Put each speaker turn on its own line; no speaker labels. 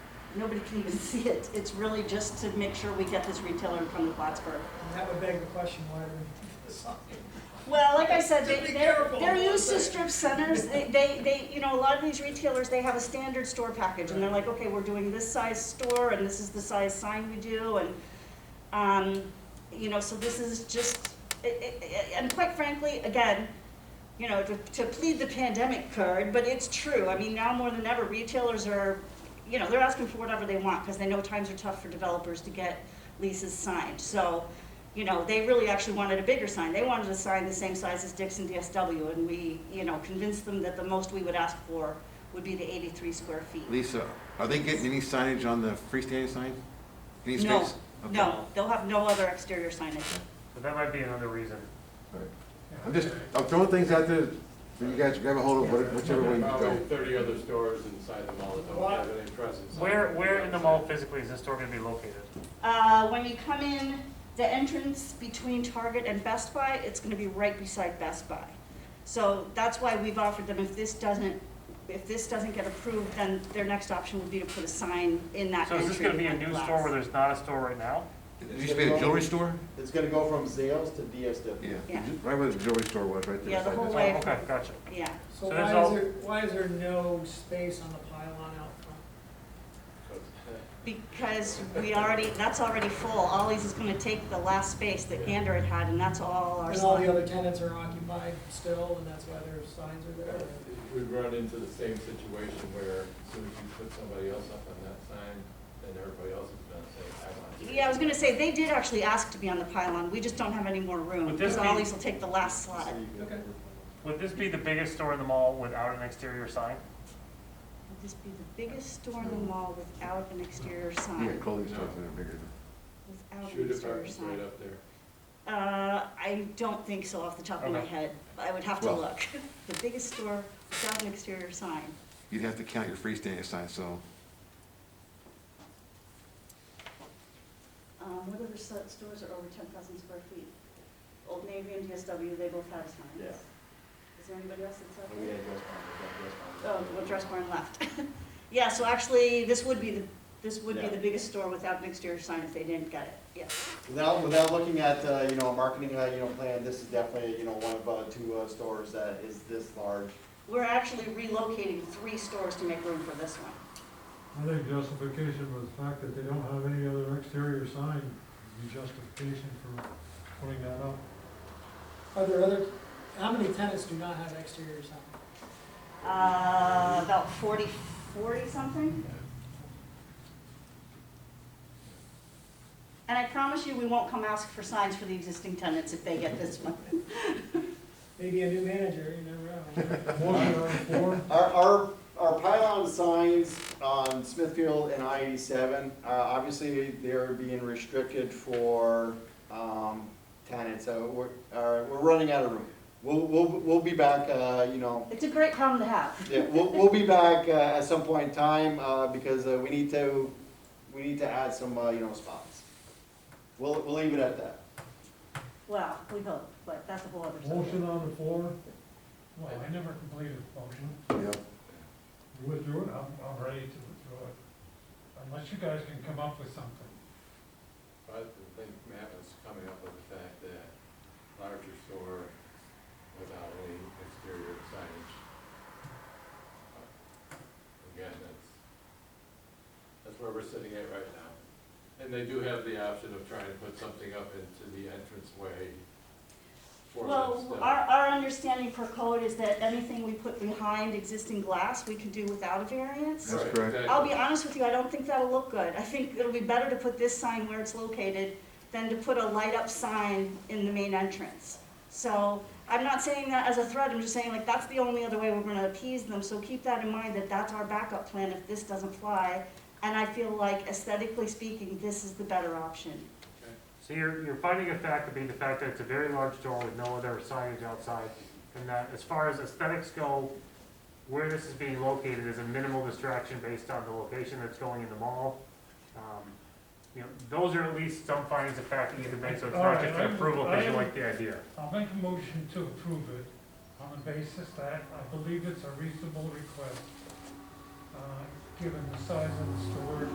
nobody can even see it. It's really just to make sure we get this retailer in front of Plattsburgh.
And that would beg the question, why do we need the sign?
Well, like I said,
Just
they,
be
they're,
careful.
they're used to strip centers, they, they, they, you know, a lot of these retailers, they have a standard store package, and they're like, okay, we're doing this size store, and this is the size sign we do, and, um, you know, so this is just, i- i- i- and quite frankly, again, you know, to, to plead the pandemic card, but it's true, I mean, now more than ever, retailers are, you know, they're asking for whatever they want, because they know times are tough for developers to get leases signed, so, you know, they really actually wanted a bigger sign. They wanted a sign the same size as Dixon DSW, and we, you know, convinced them that the most we would ask for would be the 83 square feet.
Lisa, are they getting any signage on the freestanding sign? Any
No,
space? Okay.
no, they'll have no other exterior signage.
So that might be another reason.
All right. I'm just, I'm throwing things out there, so you guys grab a hold of what- whichever way you
Probably
go.
thirty other stores inside the mall that don't have any presence.
Where, where in the mall physically is this store gonna be located?
Uh, When you come in, the entrance between Target and Best Buy, it's gonna be right beside Best Buy. So that's why we've offered them, if this doesn't, if this doesn't get approved, then their next option would be to put a sign in that
So
entry.
is this gonna be a
with
new
glass.
store where there's not a store right now?
It used to be a jewelry store?
It's gonna go from Zales to DSW.
Yeah,
Yeah.
right where the jewelry store was, right there.
Yeah, the
beside
whole
this.
way. Right.
Okay, gotcha.
Yeah.
So
So there's
why is
all-
there, why is there no space on the pylon out front?
Because we already, that's already full. Ollie's is gonna take the last space that Gander had had, and that's all our
And all the
slot.
other tenants are occupied still, and that's why their signs are there?
We'd run into the same situation where as soon as you put somebody else up on that sign, then everybody else is gonna say, I want it.
Yeah, I was gonna say, they did actually ask to be on the pylon. We just don't have any more room,
Would this
because
be-
Ollie's will take the last slot.
Okay.
Would this be the biggest store in the mall without an exterior sign?
Would this be the biggest store in the mall without an exterior
Yeah,
sign?
clothing stores that are bigger.
Without
Shoe
an exterior
department's right
sign?
up there.
Uh, I don't think so off the top of my
Okay.
head. I would have to
Well-
look. The biggest store without an exterior sign.
You'd have to count your freestanding sign, so
Um, what other sto- stores are over ten thousand square feet? Old Navy and DSW, they both have signs.
Yeah. Oh,
Is there anybody else that's out
And we
there?
had Dress Barn, we got
Oh,
Dress Barn.
well, Dressbarn left. Yeah, so actually, this would be the, this would be
Yeah.
the biggest store without an exterior sign if they didn't get it, yes.
Without, without looking at, uh, you know, a marketing, uh, you know, plan, this is definitely, you know, one of, uh, two, uh, stores that is this large.
We're actually relocating three stores to make room for this one.
I think justification for the fact that they don't have any other exterior sign would be justification for putting that up.
Are there other, how many tenants do not have exterior signs?
Uh, about forty, forty something? And I promise you, we won't come ask for signs for the existing tenants if they get this one.
Maybe a new manager, you never know.
Motion on the floor,
Our, our, our pylon signs on Smithfield and I eighty-seven, uh, obviously, they're being restricted for, um, tenants, so we're, uh, we're running out of room. We'll, we'll, we'll be back, uh, you know,
It's a great problem to have.
Yeah, we'll, we'll be back uh, at some point in time, uh, because uh, we need to, we need to add some, uh, you know, spots. We'll, we'll leave it at that.
Well, we hope, but that's a whole other subject.
motion on the floor. Well, I never completed the motion.
yeah.
You withdrew it? I'm, I'm ready to withdraw it. Unless you guys can come up with something.
But I think Matt was coming up with the fact that larger store without any exterior signage. But Again, that's, that's where we're sitting at right now. And they do have the option of trying to put something up into the entranceway for that
Well,
still.
our, our understanding per code is that anything we put behind existing glass, we can do without a variance.
That's
Right,
correct.
exactly.
I'll be honest with you, I don't think that'll look good. I think it'll be better to put this sign where it's located than to put a light-up sign in the main entrance. So I'm not saying that as a threat, I'm just saying like, that's the only other way we're gonna appease them. So keep that in mind, that that's our backup plan if this doesn't fly. And I feel like aesthetically speaking, this is the better option.
So you're, you're finding a fact to be the fact that it's a very large store with no other signage outside, and that as far as aesthetics go, where this is being located is a minimal distraction based on the location that's going in the mall. Um, You know, those are at least some findings of fact that you can make, so it's
All
not
right,
just an
I'm-
approval because you
I'm-
like the idea.
I'll make a motion to approve it on the basis that I believe it's a reasonable request, uh, given the size of the store